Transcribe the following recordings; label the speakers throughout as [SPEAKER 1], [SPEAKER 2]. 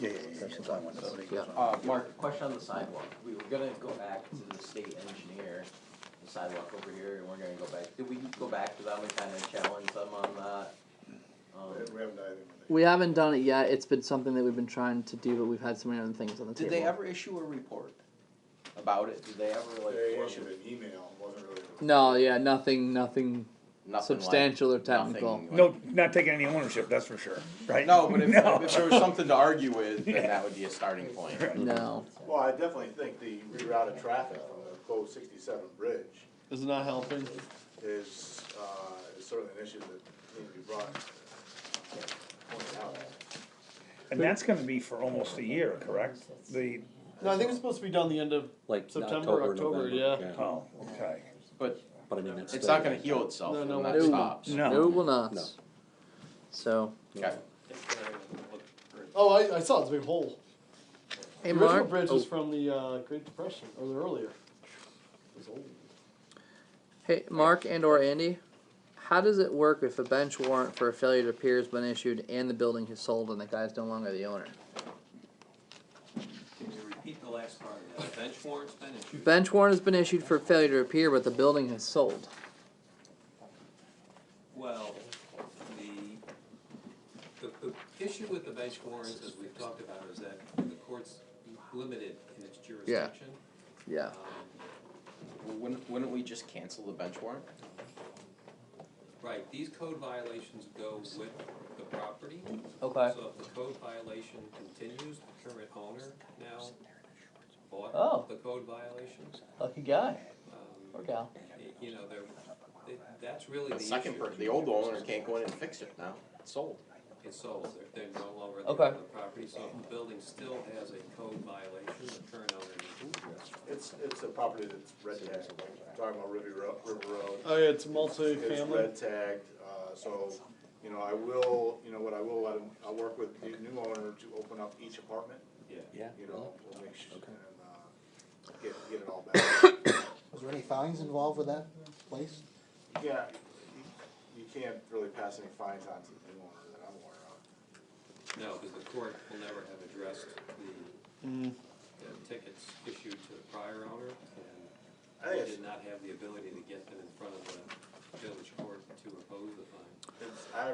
[SPEAKER 1] Yeah, yeah, yeah, she's on one of those.
[SPEAKER 2] Yeah.
[SPEAKER 3] Uh, Mark, question on the sidewalk. We were gonna go back to the state engineer, the sidewalk over here, and we're gonna go back. Did we go back to them and kinda challenge them on that? Um,
[SPEAKER 4] We haven't either.
[SPEAKER 2] We haven't done it yet. It's been something that we've been trying to do, but we've had so many other things on the
[SPEAKER 3] Did
[SPEAKER 2] table.
[SPEAKER 3] they ever issue a report about it? Did they ever like?
[SPEAKER 4] They
[SPEAKER 3] form-
[SPEAKER 4] issued an email, it wasn't really. a-
[SPEAKER 2] No, yeah, nothing, nothing.
[SPEAKER 3] Nothing like-
[SPEAKER 2] Substantial or technical.
[SPEAKER 3] nothing like-
[SPEAKER 1] No, not taking any ownership, that's for sure, right?
[SPEAKER 3] No, but if,
[SPEAKER 1] No.
[SPEAKER 3] if there was something to argue with, then that would be a starting point.
[SPEAKER 2] No,
[SPEAKER 4] Well, I definitely think the reroute of traffic from the closed sixty-seven bridge
[SPEAKER 5] Is not helping?
[SPEAKER 4] is, uh, is certainly an issue that needs to be brought, pointed out.
[SPEAKER 1] And that's gonna be for almost a year, correct? The,
[SPEAKER 5] No, I think it's supposed to be done the end of
[SPEAKER 6] Like
[SPEAKER 5] September,
[SPEAKER 6] October,
[SPEAKER 5] October,
[SPEAKER 6] November.
[SPEAKER 5] yeah.
[SPEAKER 1] oh, okay,
[SPEAKER 3] But
[SPEAKER 6] But I mean, it's.
[SPEAKER 3] it's
[SPEAKER 6] still-
[SPEAKER 3] not gonna heal itself
[SPEAKER 5] No,
[SPEAKER 3] when
[SPEAKER 5] no,
[SPEAKER 3] that
[SPEAKER 5] no.
[SPEAKER 3] stops.
[SPEAKER 2] no,
[SPEAKER 1] no,
[SPEAKER 2] it will not.
[SPEAKER 6] No.
[SPEAKER 2] So,
[SPEAKER 3] Okay.
[SPEAKER 5] Oh, I, I saw it's a big hole.
[SPEAKER 2] hey
[SPEAKER 5] the original
[SPEAKER 2] Mark,
[SPEAKER 5] bridge was
[SPEAKER 2] oh,
[SPEAKER 5] from the uh, Great Depression, or the earlier.
[SPEAKER 2] hey Mark and or Andy, how does it work if a bench warrant for a failure to appear has been issued and the building is sold and the guy's no longer the owner?
[SPEAKER 7] Can you repeat the last part of that? Bench warrant's been issued.
[SPEAKER 2] Bench warrant has been issued for failure to appear, but the building has sold.
[SPEAKER 7] Well, the, the, the issue with the bench warrants, as we've talked about, is that the court's limited in its jurisdiction.
[SPEAKER 2] Yeah.
[SPEAKER 7] Um,
[SPEAKER 3] Well, Wouldn't, wouldn't we just cancel the bench warrant?
[SPEAKER 7] Right, these code violations go with the property.
[SPEAKER 2] Okay.
[SPEAKER 7] So if the code violation continues, the current owner now
[SPEAKER 2] Oh.
[SPEAKER 7] bought the code violations.
[SPEAKER 2] Lucky guy
[SPEAKER 7] Um,
[SPEAKER 2] or gal.
[SPEAKER 7] y- You know, they're, they- that's really the
[SPEAKER 3] The
[SPEAKER 7] issue.
[SPEAKER 3] second, per- the old owner can't go in and fix it now, it's sold.
[SPEAKER 7] It's sold, they're, they're no longer the
[SPEAKER 2] Okay.
[SPEAKER 7] owner of the property, so if the building still has a code violation, the current owner needs to address. it.
[SPEAKER 4] It's, it's a property that's red tagged, talking about River Road, River Road.
[SPEAKER 5] Oh, yeah, it's
[SPEAKER 4] It's
[SPEAKER 5] multi-family.
[SPEAKER 4] red tagged, uh, so, you know, I will, you know, what I will, let him- I'll work with the new owner to open up each apartment,
[SPEAKER 7] Yeah.
[SPEAKER 6] Yeah.
[SPEAKER 4] you know, we'll make sure, and, uh, get, get it all back.
[SPEAKER 8] Was there any fines involved with that place?
[SPEAKER 4] Yeah, you, you can't really pass any fines on to the new owner that I'm aware of.
[SPEAKER 7] No, because the court will never have addressed the, the tickets issued to the prior owner,
[SPEAKER 4] I
[SPEAKER 7] and
[SPEAKER 4] think
[SPEAKER 7] they
[SPEAKER 4] it's,
[SPEAKER 7] did not have the ability to get them in front of the village court to oppose the fine.
[SPEAKER 4] it's, I,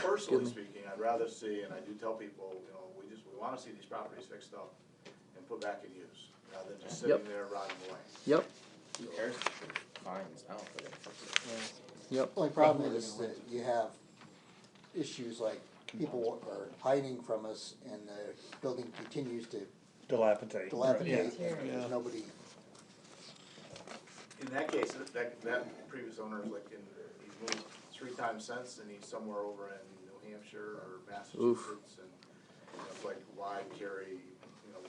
[SPEAKER 4] personally speaking, I'd rather see, and I do tell people, you know, we just, we wanna see these properties fixed up and put back in use, rather than just sitting
[SPEAKER 2] Yep.
[SPEAKER 4] there rotting away.
[SPEAKER 2] Yep.
[SPEAKER 3] Who cares? Fines, now for them.
[SPEAKER 2] Yep.
[SPEAKER 8] Only problem is that you have issues like people are hiding from us and the building continues to
[SPEAKER 1] dilapidate.
[SPEAKER 8] dilapidate and there's nobody.
[SPEAKER 4] In that case, that- that, that previous owner is like in, he's moved three times since and he's somewhere over in New Hampshire or Massachusetts and you know, it's like, why carry, you know,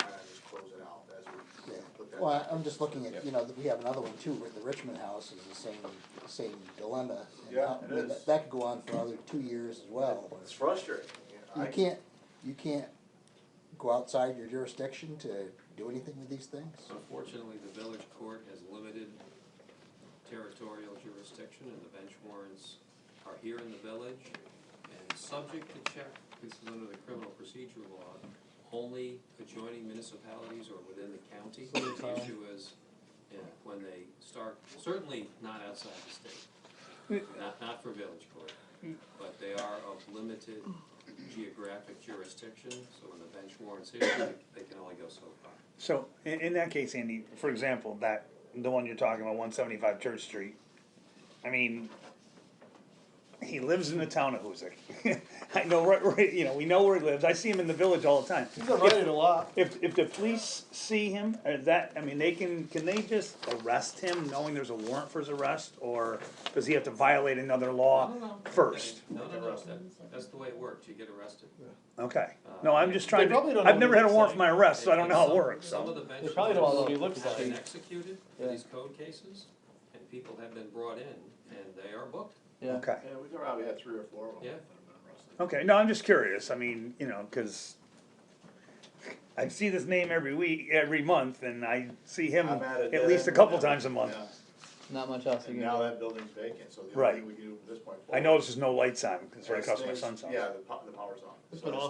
[SPEAKER 4] why not just close it out as we
[SPEAKER 8] yeah.
[SPEAKER 4] put that.
[SPEAKER 8] Well, I- I'm just looking at, you know, we have another one too, where the Richmond House is the same, same dilemma. and
[SPEAKER 4] Yeah,
[SPEAKER 8] how-
[SPEAKER 4] it is.
[SPEAKER 8] That could go on for another two years as well.
[SPEAKER 4] It's frustrating. you know,
[SPEAKER 8] You
[SPEAKER 4] I-
[SPEAKER 8] can't, you can't go outside your jurisdiction to do anything with these things.
[SPEAKER 7] Unfortunately, the village court has limited territorial jurisdiction, and the bench warrants are here in the village, and subject to check, this is under the criminal procedure law, only adjoining municipalities or within the county. The issue is, yeah, when they start, certainly not outside the state, not, not for village court, but they are of limited geographic jurisdiction, so when the bench warrants here, they can only go so far.
[SPEAKER 1] So, in, in that case, Andy, for example, that, the one you're talking about, one seventy-five Church Street, I mean, he lives in the town of Hoosick. I know, right, right, you know, we know where he lives, I see him in the village all the time.
[SPEAKER 5] He's been riding a lot.
[SPEAKER 1] If, if the police see him, or that, I mean, they can, can they just arrest him knowing there's a warrant for his arrest, or does he have to violate another law first?
[SPEAKER 7] No, no, no, that, that's the way it works, you get arrested.
[SPEAKER 1] Okay, no, I'm just trying
[SPEAKER 5] They probably
[SPEAKER 1] to,
[SPEAKER 5] don't
[SPEAKER 1] I've
[SPEAKER 5] know
[SPEAKER 1] never
[SPEAKER 5] what
[SPEAKER 1] had a
[SPEAKER 5] it's
[SPEAKER 1] warrant for my
[SPEAKER 5] like.
[SPEAKER 1] arrest, so I don't know how it
[SPEAKER 7] Some-
[SPEAKER 1] works,
[SPEAKER 7] Some of
[SPEAKER 1] so.
[SPEAKER 7] the
[SPEAKER 5] They
[SPEAKER 7] benches
[SPEAKER 5] probably don't know what he looks
[SPEAKER 7] have
[SPEAKER 5] like.
[SPEAKER 7] been executed for
[SPEAKER 5] Yeah.
[SPEAKER 7] these code cases, and people have been brought in, and they are booked,
[SPEAKER 2] Yeah.
[SPEAKER 1] Okay,
[SPEAKER 4] Yeah, we probably had three or four of them.
[SPEAKER 7] Yeah.
[SPEAKER 4] that have been arrested.
[SPEAKER 1] okay, no, I'm just curious, I mean, you know, cause I see this name every week, every month, and I see him
[SPEAKER 4] I'm at a
[SPEAKER 1] at
[SPEAKER 4] dead
[SPEAKER 1] least a
[SPEAKER 4] end.
[SPEAKER 1] couple times a month.
[SPEAKER 4] Yeah.
[SPEAKER 2] Not much else. you
[SPEAKER 4] And
[SPEAKER 2] can
[SPEAKER 4] now
[SPEAKER 2] do.
[SPEAKER 4] that building's vacant, so the
[SPEAKER 1] Right.
[SPEAKER 4] only thing we can do from this point
[SPEAKER 1] I
[SPEAKER 4] forward.
[SPEAKER 1] notice there's no lights on, cause right
[SPEAKER 4] is
[SPEAKER 1] across my
[SPEAKER 4] things-
[SPEAKER 1] son's house.
[SPEAKER 4] Yeah, the po- the power's on.
[SPEAKER 5] It's
[SPEAKER 4] So
[SPEAKER 5] been
[SPEAKER 4] it's-